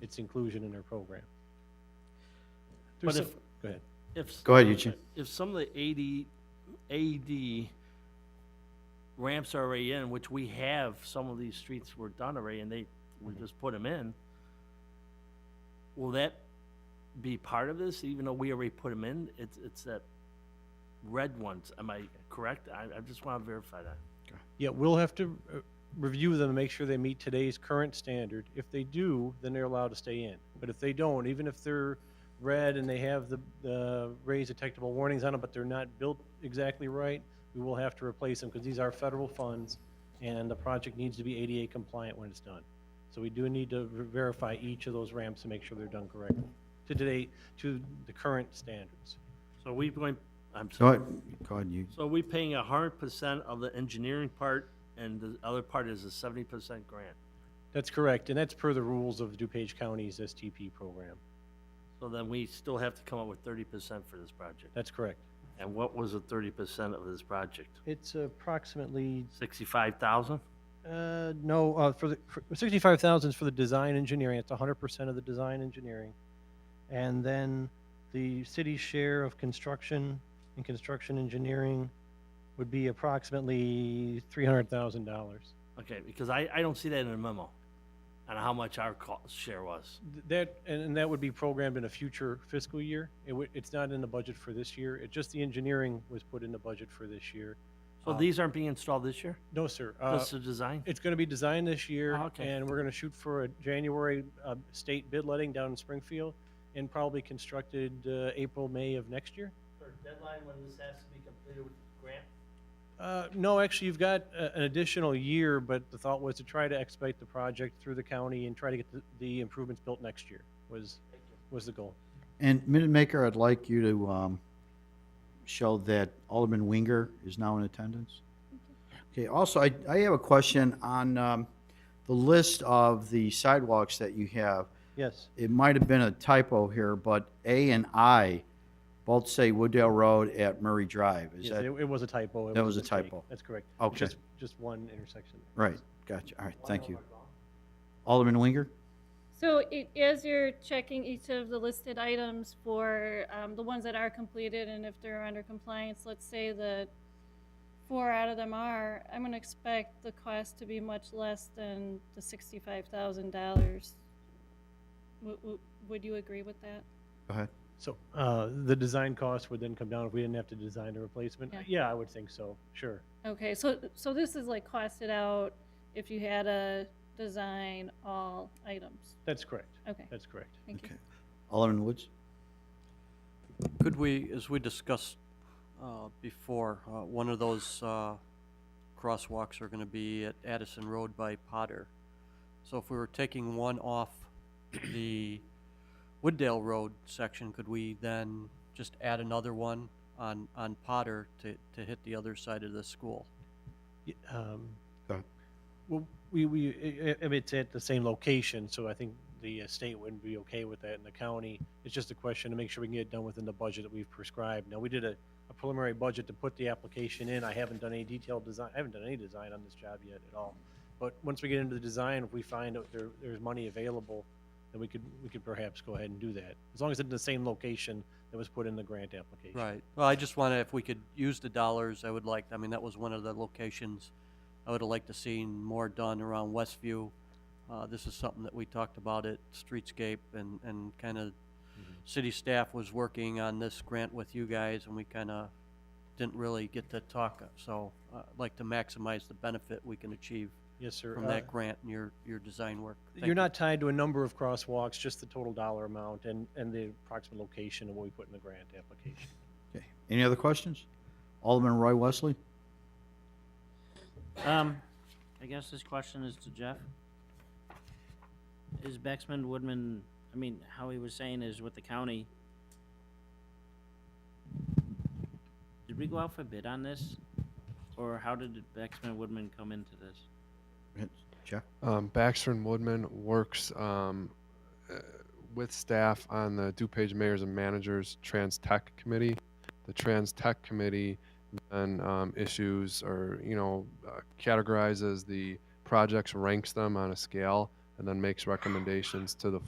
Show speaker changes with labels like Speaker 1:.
Speaker 1: its inclusion in our program.
Speaker 2: There's some-
Speaker 1: But if, go ahead.
Speaker 3: If,
Speaker 4: Go ahead, Eugene.
Speaker 3: if some of the AD, AD ramps are already in, which we have, some of these streets were done already, and they, we
Speaker 4: Mm-hmm.
Speaker 3: just put them in, will that be part of this, even though we already put them in? It's, it's that red ones, am I correct? I, I just want to verify that.
Speaker 1: Yeah, we'll have to uh, review them and make sure they meet today's current standard. If they do, then they're allowed to stay in. But if they don't, even if they're red and they have the, the raised detectable warnings on them, but they're not built exactly right, we will have to replace them because these are federal funds and the project needs to be ADA compliant when it's done. So we do need to ver- verify each of those ramps to make sure they're done correctly to today, to the current standards.
Speaker 3: So we going, I'm
Speaker 4: Go
Speaker 3: sorry.
Speaker 4: ahead, go ahead, you,
Speaker 3: So are we paying a hundred percent of the engineering part, and the other part is a seventy percent grant?
Speaker 1: That's correct, and that's per the rules of DuPage County's STP program.
Speaker 3: So then we still have to come up with thirty percent for this project.
Speaker 1: That's correct.
Speaker 3: And what was the thirty percent of this project?
Speaker 1: It's approximately,
Speaker 3: Sixty-five thousand?
Speaker 1: uh, no, uh, for the, for sixty-five thousand is for the design engineering, it's hundred percent of the design engineering. And then the city's share of construction and construction engineering would be approximately three hundred thousand dollars.
Speaker 3: Okay, because I, I don't see that in the memo, on how much our cost share was.
Speaker 1: That, and, and that would be programmed in a future fiscal year, it would, it's not in the budget for this year, it just the engineering was put in the budget for this year.
Speaker 3: So
Speaker 1: Um,
Speaker 3: these aren't being installed this year,
Speaker 1: No, sir, uh,
Speaker 3: just the design?
Speaker 1: It's going to be designed this year,
Speaker 3: Oh, okay.
Speaker 1: and we're going to shoot for a January uh, state bid letting down in Springfield, and probably constructed uh, April, May of next year.
Speaker 3: deadline when this has to be completed with grant?
Speaker 1: Uh, No, actually, you've got a- an additional year, but the thought was to try to expedite the project through the county and try to get the- the improvements built next year was, was the goal.
Speaker 4: and Minute Maker, I'd like you to, um, show that Alderman Winger is now in attendance. Okay, also, I, I have a question on, um, the list of the sidewalks that you have.
Speaker 1: Yes,
Speaker 4: It might have been a typo here, but A and I both say Wooddale Road at Murray Drive. Is
Speaker 1: yes,
Speaker 4: that
Speaker 1: it it was a typo. It
Speaker 4: That was a
Speaker 1: mistake.
Speaker 4: typo.
Speaker 1: That's correct. It's
Speaker 4: Okay.
Speaker 1: Just, just one intersection.
Speaker 4: Right, gotcha, all right, thank you. Alderman Winger?
Speaker 5: So it, as you're checking each of the listed items for um, the ones that are completed and if they're under compliance, let's say that four out of them are, I'm going to expect the cost to be much less than the $65,000. Would- would- Would you agree with that?
Speaker 4: Go ahead.
Speaker 1: So uh, the design cost would then come down if we didn't have to design a replacement?
Speaker 5: Yeah.
Speaker 1: Yeah, I would think so, sure.
Speaker 5: Okay, so, so this is like costed out if you had a design all items.
Speaker 1: That's correct,
Speaker 5: Okay,
Speaker 1: that's correct.
Speaker 5: thank you.
Speaker 4: Okay. Alderman Woods?
Speaker 6: Could we, as we discussed uh, before, uh, one of those uh, crosswalks are going to be at Addison Road by Potter. So if we were taking one off the Wooddale Road section, could we then just add another one on, on Potter to, to hit the other side of the school?
Speaker 1: Y- um,
Speaker 4: Go ahead.
Speaker 1: Well, we, we, i- i- if it's at the same location, so I think the uh, state wouldn't be okay with that in the county. It's just a question to make sure we can get it done within the budget that we've prescribed. Now, we did a a preliminary budget to put the application in. I haven't done any detailed design, I haven't done any design on this job yet at all. But once we get into the design, if we find out there, there's money available, then we could, we could perhaps go ahead and do that. As long as it's in the same location that was put in the grant application.
Speaker 6: Right. Well, I just wanted, if we could use the dollars, I would like, I mean, that was one of the locations I would have liked to seen more done around Westview. Uh, this is something that we talked about at Streetscape and, and kind of
Speaker 1: Mm-hmm.
Speaker 6: city staff was working on this grant with you guys and we kind of didn't really get to talk. So uh, I'd like to maximize the benefit we can achieve
Speaker 1: Yes, sir.
Speaker 6: from
Speaker 1: Uh,
Speaker 6: that grant and your, your design work. Thank
Speaker 1: You're
Speaker 6: you.
Speaker 1: not tied to a number of crosswalks, just the total dollar amount and, and the approximate location of what we put in the grant application.
Speaker 4: Okay. Any other questions? Alderman Roy Wesley?
Speaker 7: Um, I guess this question is to Jeff. Is Bexman Woodman, I mean, how he was saying is with the county. Did we go out for bid on this? Or how did Bexman Woodman come into this?
Speaker 4: Jeff?
Speaker 8: Um, Baxter and Woodman works um, uh, with staff on the DuPage Mayors and Managers Trans Tech Committee. The Trans Tech Committee then um, issues or you know uh, categorizes the projects, ranks them on a scale, and then makes recommendations to the